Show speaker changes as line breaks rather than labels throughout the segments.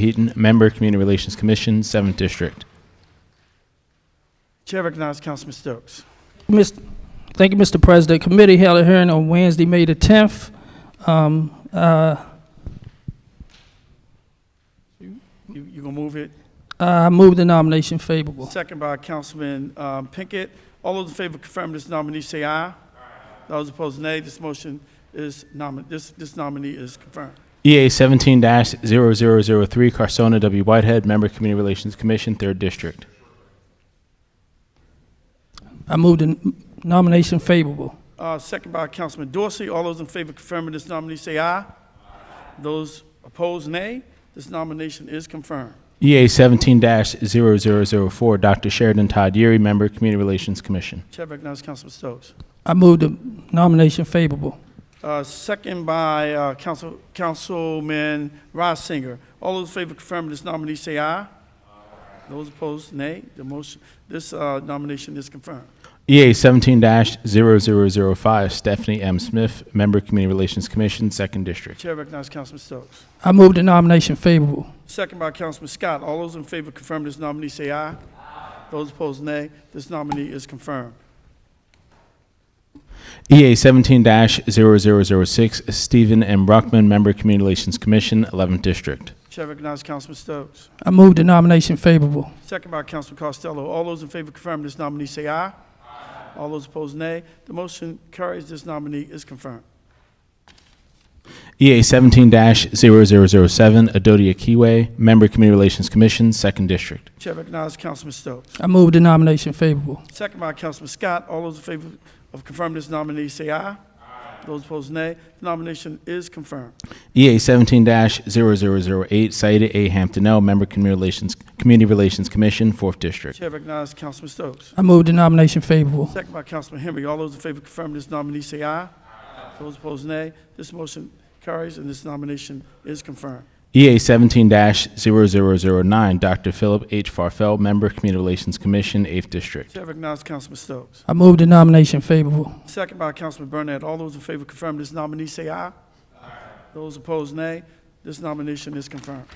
Heaton, Member, Community Relations Commission, 7th District.
Chair recognizes Councilman Stokes.
Mis- Thank you, Mr. President. Committee held a hearing on Wednesday, May the 10th. Um, uh,
You, you gonna move it?
Uh, I move the nomination favorable.
Second by Councilman um, Pinkett. All those in favor of confirming this nominee, say aye. Those opposed, nay. This motion is nomin, this, this nominee is confirmed.
EA 17 0003, Carsona W. Whitehead, Member, Community Relations Commission, 3rd District.
I move the n- nomination favorable.
Uh, Second by Councilman Dorsey. All those in favor of confirming this nominee, say aye. Those opposed, nay. This nomination is confirmed.
EA 17 0004, Dr. Sheridan Todd Yeary, Member, Community Relations Commission.
Chair recognizes Councilman Stokes.
I move the nomination favorable.
Uh, Second by uh, Council, Councilman Reisinger. All those in favor of confirming this nominee, say aye. Those opposed, nay. The motion, this uh, nomination is confirmed.
EA 17 0005, Stephanie M. Smith, Member, Community Relations Commission, 2nd District.
Chair recognizes Councilman Stokes.
I move the nomination favorable.
Second by Councilman Scott. All those in favor of confirming this nominee, say aye. Those opposed, nay. This nominee is confirmed.
EA 17 0006, Stephen M. Brockman, Member, Community Relations Commission, 11th District.
Chair recognizes Councilman Stokes.
I move the nomination favorable.
Second by Councilman Costello. All those in favor of confirming this nominee, say aye. All those opposed, nay. The motion carries. This nominee is confirmed.
EA 17 0007, Adodia Kiwe, Member, Community Relations Commission, 2nd District.
Chair recognizes Councilman Stokes.
I move the nomination favorable.
Second by Councilman Scott. All those in favor of confirming this nominee, say aye. Those opposed, nay. The nomination is confirmed.
EA 17 0008, Saida A. Hamptonell, Member, Community Relations, Community Relations Commission, 4th District.
Chair recognizes Councilman Stokes.
I move the nomination favorable.
Second by Councilman Henry. All those in favor of confirming this nominee, say aye. Those opposed, nay. This motion carries, and this nomination is confirmed.
EA 17 0009, Dr. Philip H. Farfel, Member, Community Relations Commission, 8th District.
Chair recognizes Councilman Stokes.
I move the nomination favorable.
Second by Councilman Burnett. All those in favor of confirming this nominee, say aye. Those opposed, nay. This nomination is confirmed.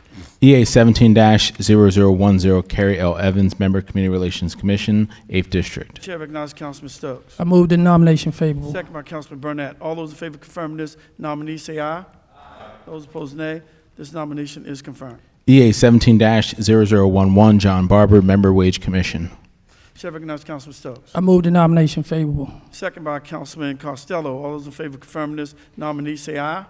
EA 17 0010, Carrie L. Evans, Member, Community Relations Commission, 8th District.
Chair recognizes Councilman Stokes.
I move the nomination favorable.
Second by Councilman Burnett. All those in favor of confirming this nominee, say aye. Those opposed, nay. This nomination is confirmed.
EA 17 0011, John Barber, Member, Wage Commission.
Chair recognizes Councilman Stokes.
I move the nomination favorable.
Second by Councilman Costello. All those in favor of confirming this nominee, say aye.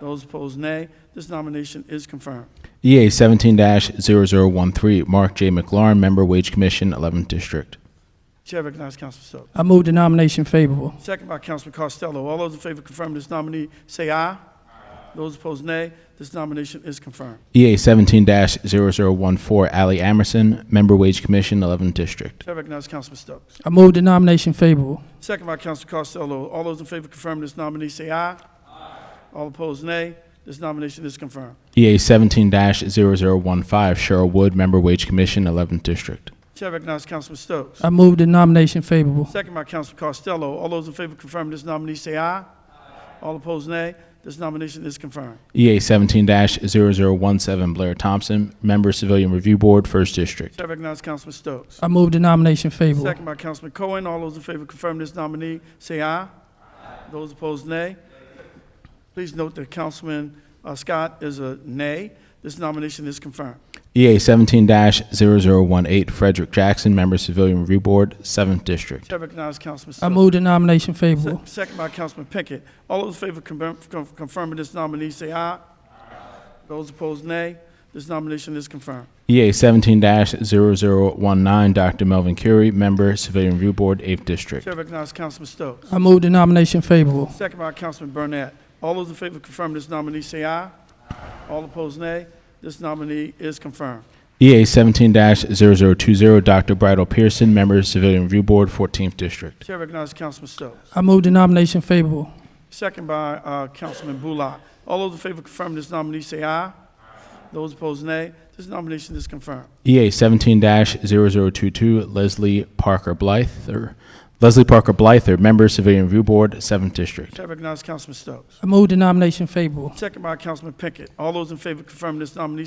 Those opposed, nay. This nomination is confirmed.
EA 17 0013, Mark J. McLaurin, Member, Wage Commission, 11th District.
Chair recognizes Councilman Stokes.
I move the nomination favorable.
Second by Councilman Costello. All those in favor of confirming this nominee, say aye. Those opposed, nay. This nomination is confirmed.
EA 17 0014, Ally Amerson, Member Wage Commission, 11th District.
Chair recognizes Councilman Stokes.
I move the nomination favorable.
Second by Councilman Costello. All those in favor of confirming this nominee, say aye. All opposed, nay. This nomination is confirmed.
EA 17 0015, Cheryl Wood, Member Wage Commission, 11th District.
Chair recognizes Councilman Stokes.
I move the nomination favorable.
Second by Councilman Costello. All those in favor of confirming this nominee, say aye. All opposed, nay. This nomination is confirmed.
EA 17 0017, Blair Thompson, Member Civilian Review Board, 1st District.
Chair recognizes Councilman Stokes.
I move the nomination favorable.
Second by Councilman Cohen. All those in favor of confirming this nominee, say aye. Those opposed, nay. Please note that Councilman uh, Scott is a nay. This nomination is confirmed.
EA 17 0018, Frederick Jackson, Member Civilian Review Board, 7th District.
Chair recognizes Councilman Stokes.
I move the nomination
Se-
favorable.
Second by Councilman Pinkett. All those in favor of confirm- con- confirming this nominee, say aye. Those opposed, nay. This nomination is confirmed.
EA 17 0019, Dr. Melvin Curie, Member Civilian Review Board, 8th District.
Chair recognizes Councilman Stokes.
I move the nomination favorable.
Second by Councilman Burnett. All those in favor of confirming this nominee, say aye. All opposed, nay. This nominee is confirmed.
EA 17 0020, Dr. Bridal Pearson, Member Civilian Review Board, 14th District.
Chair recognizes Councilman Stokes.
I move the nomination favorable.
Second by uh, Councilman Bullock. All those in favor of confirming this nominee, say aye. Those opposed, nay. This nomination is confirmed.
EA 17 0022, Leslie Parker Blyther, Leslie Parker Blyther, Member Civilian Review Board, 7th District.
Chair recognizes Councilman Stokes.
I move the nomination favorable.
Second by Councilman Pinkett. All those in favor of confirming this nominee,